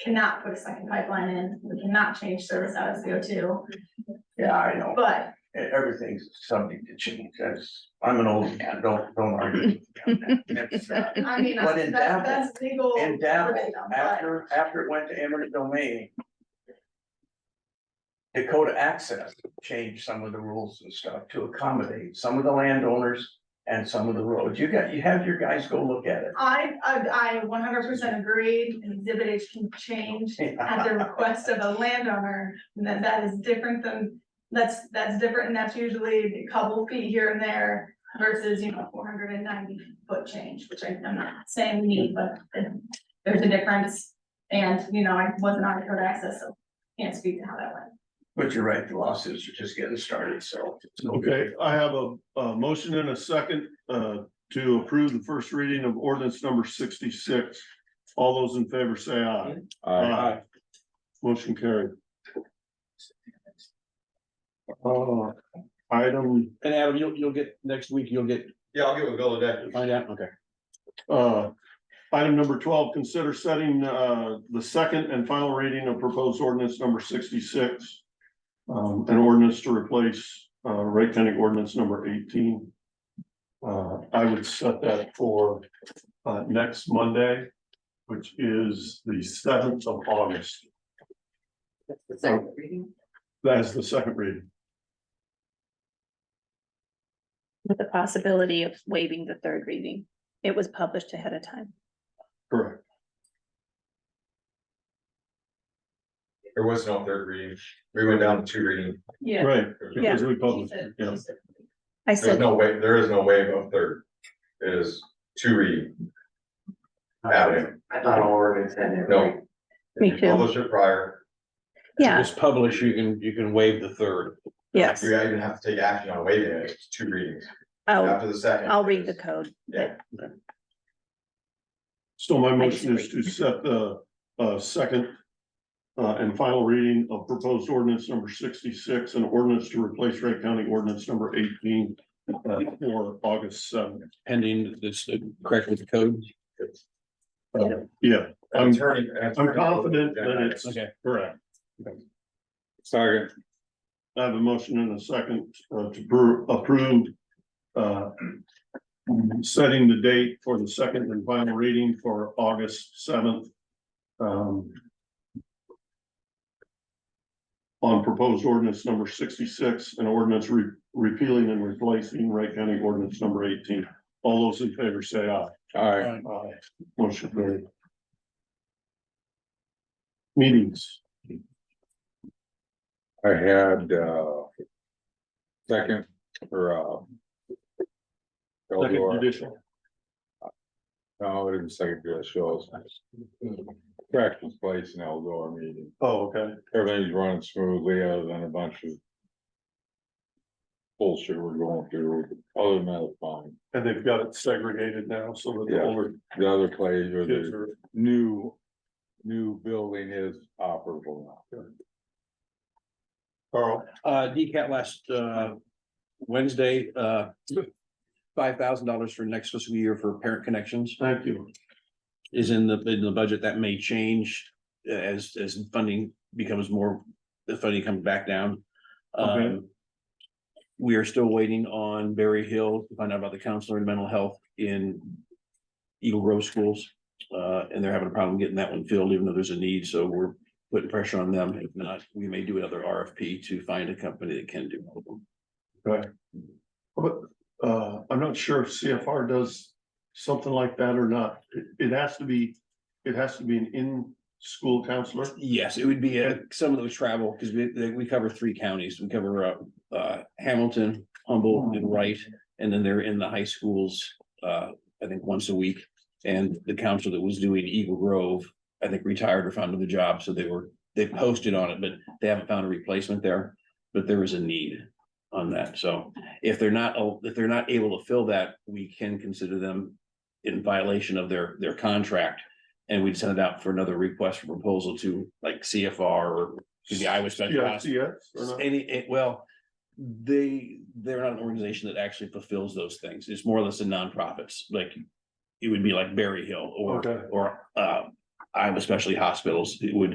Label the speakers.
Speaker 1: cannot put a second pipeline in, we cannot change service out of CO two,
Speaker 2: Yeah, I know,
Speaker 1: but
Speaker 2: E- everything's subject to change, that's, I'm an old man, don't, don't argue. with me on that. That's, uh,
Speaker 1: I mean,
Speaker 2: But in
Speaker 1: that's,
Speaker 2: Davil-
Speaker 1: that's legal.
Speaker 2: in Davil,
Speaker 1: verbatim, but-
Speaker 2: After, after it went to eminent domain. Dakota Access changed some of the rules and stuff to accommodate some of the landowners and some of the roads. You got, you have your guys go look at
Speaker 1: I, I, I one hundred percent agree, exhibit H can change
Speaker 2: it.
Speaker 1: at the request of a landowner, and that, that is different than, that's, that's different, and that's usually a couple feet here and there versus, you know, four hundred and ninety foot change, which I, I'm not saying we need, but there's a difference. And, you know, I wasn't on code access, so can't speak to how that went.
Speaker 2: But you're right, the lawsuits are just getting started, so. it's no
Speaker 3: Okay,
Speaker 2: good.
Speaker 3: I have a, a motion and a second, uh, to approve the first reading of ordinance number sixty-six. All those in favor say aye. Aye. Motion carried. Uh, item,
Speaker 4: And Adam, you'll, you'll get, next week, you'll get,
Speaker 5: Yeah, I'll give it a go today.
Speaker 4: find out, okay.
Speaker 3: uh, item number twelve, consider setting, uh, the second and final reading of proposed ordinance number sixty-six. Um, an ordinance to replace, uh, Wright County ordinance number eighteen. Uh, I would set that for, uh, next Monday, which is the seventh of August.
Speaker 6: Second reading
Speaker 3: That is the second reading.
Speaker 7: with the possibility of waiving the third reading. It was published ahead of time.
Speaker 3: Correct.
Speaker 5: There was no third reading. We went down to two reading.
Speaker 1: Yeah.
Speaker 3: Right,
Speaker 7: Yeah.
Speaker 3: because we published, it, yeah.
Speaker 7: I
Speaker 5: There's
Speaker 7: said,
Speaker 5: no way, there is no wave of third. It is two reading. Avenue.
Speaker 6: I thought all ordinance had it.
Speaker 5: No.
Speaker 7: Me
Speaker 5: If
Speaker 7: too.
Speaker 5: you Publish it prior.
Speaker 7: yeah,
Speaker 4: Just publish, you can, you can waive the third.
Speaker 7: yes,
Speaker 5: You even have to take action on waiving it. It's two readings.
Speaker 7: I'll,
Speaker 5: After the second.
Speaker 7: I'll read the code.
Speaker 5: Yeah.
Speaker 3: So my motion is to set the uh second. Uh and final reading of proposed ordinance number sixty-six and ordinance to replace Wright County ordinance number eighteen. uh, for August seventh.
Speaker 4: Pending this, uh, correct with the code.
Speaker 3: Yeah,
Speaker 5: An
Speaker 3: I'm
Speaker 5: Attorney. an
Speaker 3: I'm
Speaker 5: attorney-
Speaker 3: confident that it's
Speaker 4: Okay.
Speaker 3: correct.
Speaker 4: Sorry.
Speaker 3: I have a motion and a second uh, to approve- approve. uh, Setting the date for the second and final reading for August seventh. um, On proposed ordinance number sixty-six and ordinance re- repealing and replacing Wright County ordinance number eighteen. All those in favor say aye.
Speaker 4: All right.
Speaker 3: Aye. Motion carried. Meetings.
Speaker 8: I had, uh. Second, or, uh.
Speaker 3: Second
Speaker 8: Eldora,
Speaker 3: judicial.
Speaker 8: no, it isn't second judicial. Practice place in Eldora meeting,
Speaker 3: Oh, okay.
Speaker 8: everything's running smoothly other than a bunch of. Bullshit we're going through, other than that, it's fine,
Speaker 3: And they've got it segregated now so that the
Speaker 8: Yeah.
Speaker 3: older
Speaker 8: the other place or
Speaker 3: kids
Speaker 8: the
Speaker 3: are
Speaker 8: new. New building is operable now.
Speaker 3: Carl,
Speaker 4: Uh, DCAT last, uh, Wednesday, uh, five thousand dollars for next fiscal year for parent connections
Speaker 3: thank you.
Speaker 4: is in the, in the budget. That may change uh, as, as funding becomes more, the funding comes back down.
Speaker 3: Okay.
Speaker 4: Um, we are still waiting on Berry Hill to find out about the counselor and mental health in Eagle Grove schools. Uh, and they're having a problem getting that one filled, even though there's a need, so we're putting pressure on them. If not, we may do another RFP to find a company that can do.
Speaker 3: But uh, I'm not sure if CFR does something like that or not. It, it has to be, it has to be an in-school counselor.
Speaker 4: Yes, it would be uh, some of those travel, because we, they- we cover three counties. We cover uh, uh, Hamilton, Humboldt, and Wright. And then they're in the high schools, uh, I think, once a week. And the council that was doing Eagle Grove, I think retired or found another job, so they were, they posted on it, but they haven't found a replacement there. But there is a need on that, so if they're not, oh, if they're not able to fill that, we can consider them in violation of their, their contract. And we'd send it out for another request for proposal to like CFR or to the Iowa Special
Speaker 3: Yeah,
Speaker 4: Task
Speaker 3: CS or not?
Speaker 4: any, eh, well, they, they're not an organization that actually fulfills those things. It's more or less a nonprofits, like. It would be like Berry Hill or,
Speaker 3: Okay.
Speaker 4: or, uh, Iowa Specialty Hospitals, it would